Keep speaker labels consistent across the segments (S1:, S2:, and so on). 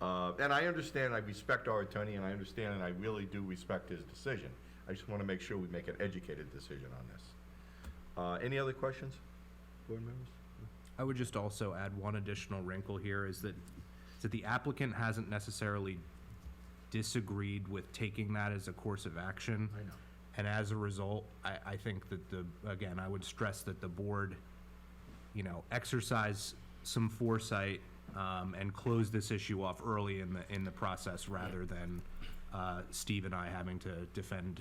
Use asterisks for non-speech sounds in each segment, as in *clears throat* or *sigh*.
S1: Uh, And I understand, I respect our attorney, and I understand, and I really do respect his decision. I just want to make sure we make an educated decision on this. Uh, Any other questions, board members?
S2: I would just also add one additional wrinkle here is that, is that the applicant hasn't necessarily disagreed with taking that as a course of action.
S1: I know.
S2: And as a result, I, I think that the, again, I would stress that the board, you know, exercise some foresight, um, and close this issue off early in the, in the process rather than, uh, Steve and I having to defend,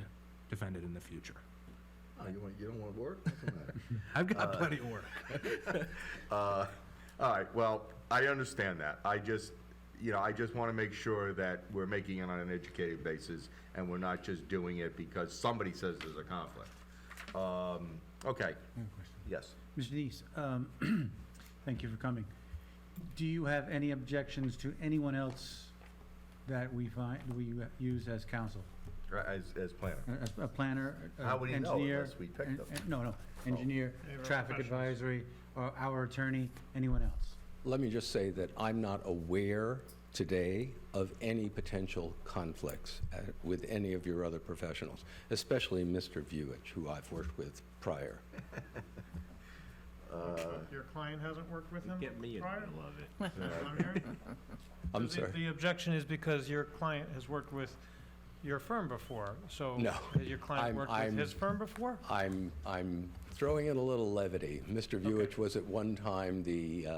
S2: defend it in the future.
S1: Oh, you want, you don't want to work?
S2: I've got plenty of work.
S1: Uh, *laughs* All right, well, I understand that. I just, you know, I just want to make sure that we're making it on an educated basis and we're not just doing it because somebody says there's a conflict. Um, Okay. Yes.
S3: Mr. Denise, um, *clears throat* thank you for coming. Do you have any objections to anyone else that we find, we use as counsel?
S1: As, as planner.
S3: A- A planner, a
S1: How would he know
S3: engineer?
S1: unless we picked Oh.
S3: en-
S1: them?
S3: en- No, no, engineer, traffic advisory, or our attorney, anyone else?
S4: Let me just say that I'm not aware today of any potential conflicts uh, with any of your other professionals, especially Mr. Vuich, who I've worked with prior.
S5: Your client hasn't worked with him
S6: Get me in, I
S5: prior?
S6: love it.
S5: Is that what I'm hearing?
S4: I'm
S5: The-
S4: sorry.
S5: The objection is because your client has worked with your firm before, so.
S4: No.
S5: Has your client
S4: I'm-
S5: worked with
S4: I'm-
S5: his firm before?
S4: I'm, I'm throwing in a little levity. Mr. Vuich was at one time the uh,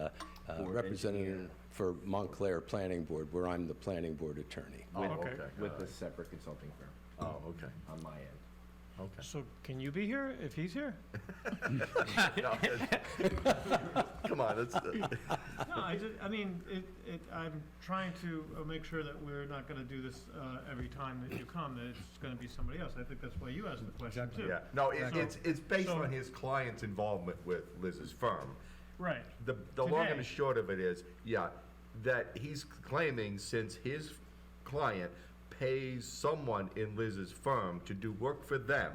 S4: uh, representative for Montclair Planning Board, where I'm the planning board attorney.
S1: Oh,
S6: With-
S1: okay.
S6: With a separate consulting firm
S1: Oh, okay,
S6: on my end.
S1: okay.
S5: So can you be here if he's here?
S6: *laughs*
S1: No, that's- *laughs* Come on, that's,
S5: No, I just, I mean, it, it, I'm trying to uh, make sure that we're not gonna do this, uh, every time that you come, that it's gonna be somebody else. I think that's why you asked the question too.
S1: yeah. No, it- it's, it's based
S5: So-
S1: on his client's involvement with Liz's firm.
S5: Right.
S1: The, the long
S5: Today.
S1: and the short of it is, yeah, that he's claiming since his client pays someone in Liz's firm to do work for them,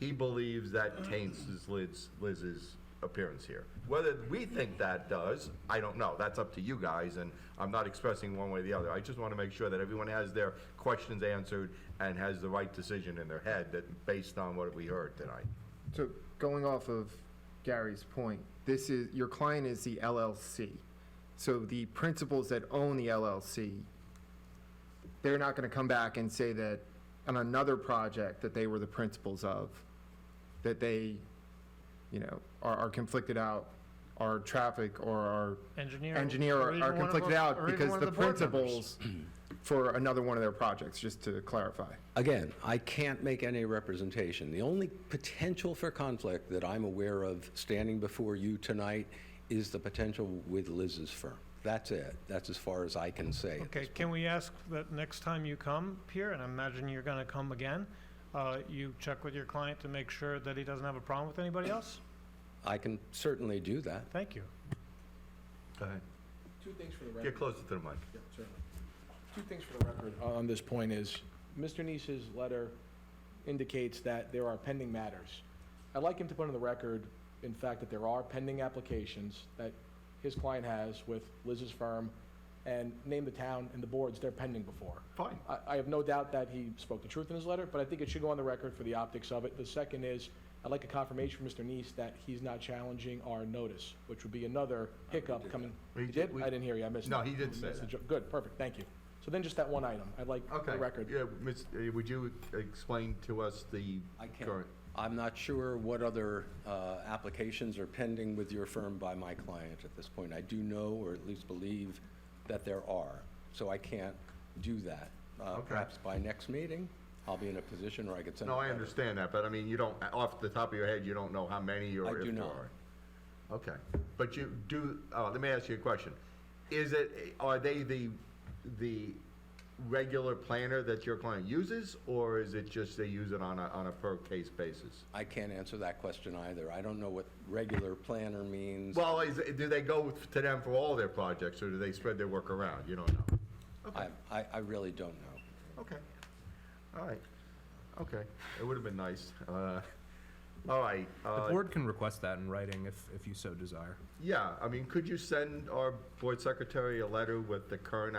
S1: he believes that taints his Liz, Liz's appearance here. Whether we think that does, I don't know. That's up to you guys, and I'm not expressing one way or the other. I just want to make sure that everyone has their questions answered and has the right decision in their head that, based on what we heard tonight.
S7: So going off of Gary's point, this is, your client is the LLC. So the principals that own the LLC, they're not gonna come back and say that on another project that they were the principals of, that they, you know, are, are conflicted out, are traffic or are
S5: Engineer.
S7: engineer
S5: or
S7: are-
S5: even
S7: are
S5: one of
S7: conflicted
S5: our-
S7: out
S5: or even
S7: because
S5: one of
S7: the
S5: board members.
S7: principals for another one of their projects, just to clarify.
S4: Again, I can't make any representation. The only potential for conflict that I'm aware of standing before you tonight is the potential with Liz's firm. That's it. That's as far as I can say.
S5: Okay, can we ask that next time you come here, and I imagine you're gonna come again, uh, you check with your client to make sure that he doesn't have a problem with anybody else?
S4: I can certainly do that.
S5: Thank you.
S1: Go ahead.
S8: Two things for the
S1: Get
S8: record.
S1: closer to the mic.
S8: Yeah, certainly. Two things for the record on this point is, Mr. Nice's letter indicates that there are pending matters. I'd like him to put on the record, in fact, that there are pending applications that his client has with Liz's firm, and name the town and the boards they're pending before.
S1: Fine.
S8: I, I have no doubt that he spoke the truth in his letter, but I think it should go on the record for the optics of it. The second is, I'd like a confirmation from Mr. Nice that he's not challenging our notice, which would be another hiccup coming.
S1: We
S8: You
S1: did-
S8: did?
S1: we-
S8: I didn't hear you, I missed it.
S1: No, he did say
S8: Missed the
S1: that.
S8: jo- Good, perfect, thank you. So then just that one item, I'd like
S1: Okay.
S8: the record.
S1: Yeah, Ms., uh, would you explain to us the
S4: I can't.
S1: current?
S4: I'm not sure what other uh, applications are pending with your firm by my client at this point. I do know, or at least believe, that there are, so I can't do that. Uh,
S1: Okay.
S4: Perhaps by next meeting, I'll be in a position where I could send.
S1: No,
S4: a
S1: I
S4: letter.
S1: understand that, but I mean, you don't, off the top of your head, you don't know how many or
S4: I
S1: if there are.
S4: do not.
S1: Okay, but you do, oh, let me ask you a question. Is it, are they the, the regular planner that your client uses, or is it just they use it on a, on a per case basis?
S4: I can't answer that question either. I don't know what regular planner means.
S1: Well, is, do they go to them for all their projects, or do they spread their work around? You don't know.
S4: I, I I really don't know.
S1: Okay. All right. Okay. It would have been nice. Uh, all right.
S2: The
S1: Uh,
S2: board can request that in writing if, if you so desire.
S1: yeah. I mean, could you send our board secretary a letter with the current